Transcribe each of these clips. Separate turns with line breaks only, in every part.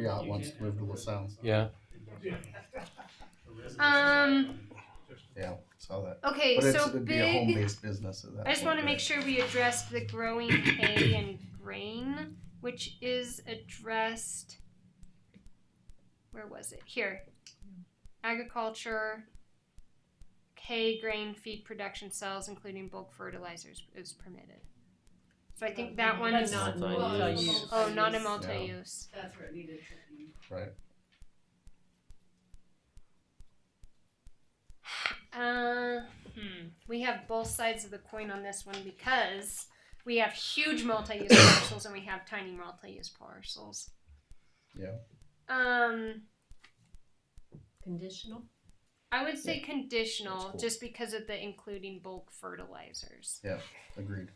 Yacht wants to move to LaSalle.
Yeah.
Um,
Yeah, saw that.
okay,
But it's,
so
it'd be a
big.
home-based business at that
I just
point,
want to
right?
make sure we addressed the growing hay and grain, which is addressed. Where was it? Here. Agriculture, hay, grain, feed production cells, including bulk fertilizers, is permitted. So I think that one
But
is.
not
Multi-use.
multi-use.
Oh, not a multi-use.
That's where it needed to be.
Uh, hmm. We have both sides of the coin on this one because we have huge multi-use parcels and we have tiny multi-use parcels.
Yeah.
Um,
Conditional?
I would say conditional
That's cool.
just because of the including bulk fertilizers.
Agreed.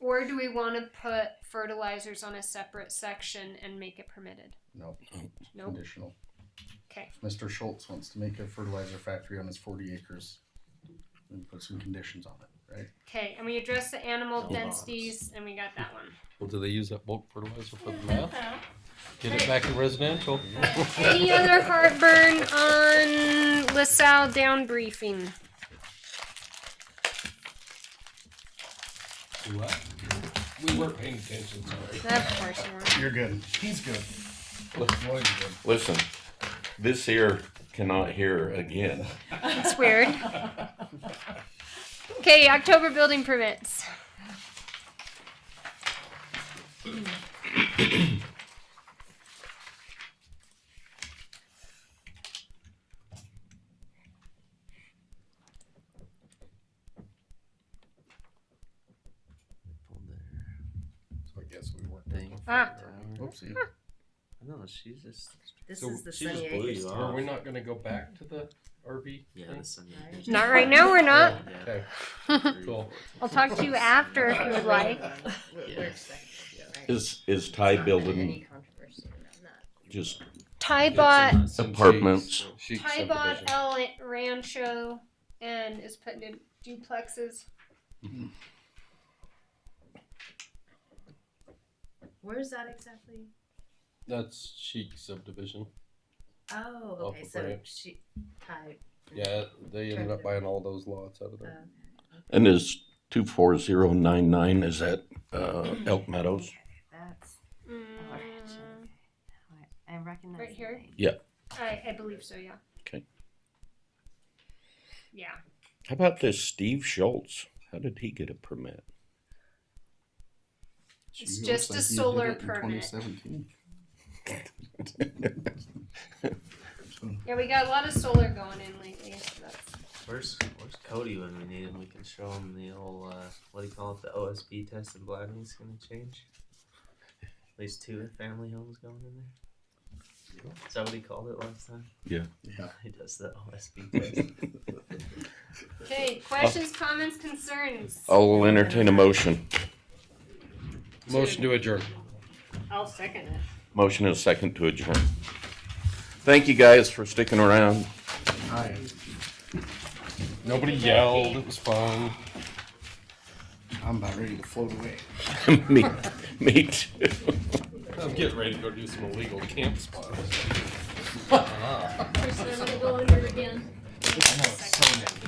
Or do we want to put fertilizers on a separate section and make it permitted?
No,
Nope.
conditional.
Okay.
Mr. Schultz wants to make a fertilizer factory on his forty acres and put some conditions on it, right?
Okay, and we address the animal
No
densities, and we got that one.
Well, do they use that bulk fertilizer for the meth? Get it back to residential.
Any other heartburn on LaSalle down briefing?
What? We weren't paying attention, sorry.
Of course you weren't.
You're good. He's good. Lloyd's good.
Listen, this here cannot hear again.
It's weird. Okay, October building permits.
So I guess we weren't.
Thing.
Ah,
Whoopsie.
No, she's just.
This
So
is the
she just
Sunny
blew
Acres.
you
Are
off.
we not gonna go back to the RV?
Yeah,
thing?
the Sunny Acres.
not right now, we're not.
Oh,
Yeah.
Okay, cool.
I'll talk to you after if you would like.
We're- we're second, right?
Is is Thai
Not
building
Any controversy around that.
just
Ty bought,
apartments?
Chic
Ty bought
subdivision.
El Rancho and is putting in duplexes.
Where is that exactly?
That's chic subdivision.
Oh,
Off
okay,
of
so
Bryant.
she, Ty,
Yeah, they ended up buying all those lots out of
uh,
there.
And is two four zero nine nine is that uh, Elk Meadows?
that's, oh,
Mm,
I recognize.
Right
the
here?
name.
I, I believe so, yeah.
'Kay.
Yeah.
How about this Steve Schultz? How did he get a permit?
It's just a solar permit. Yeah, we got a lot of solar going in lately. so that's-
Where's Where's Cody when we need him? We can show him the old uh, what do you call it? The OSB test in Bladney's gonna change. At least two family homes going in there. Is that what he called it last time?
Yeah.
Yeah.
He does the OSB test.
Okay, questions, comments, concerns?
I'll entertain a motion.
Motion to adjourn.
I'll second it.
Motion is second to adjourn. Thank you guys for sticking around.
Hi.
Nobody yelled. It was fun.
I'm about ready to float away.
me, me too.
I'm getting ready to go do some illegal camp spots.
First, I'm gonna go under
I
again.
know, it's so nice.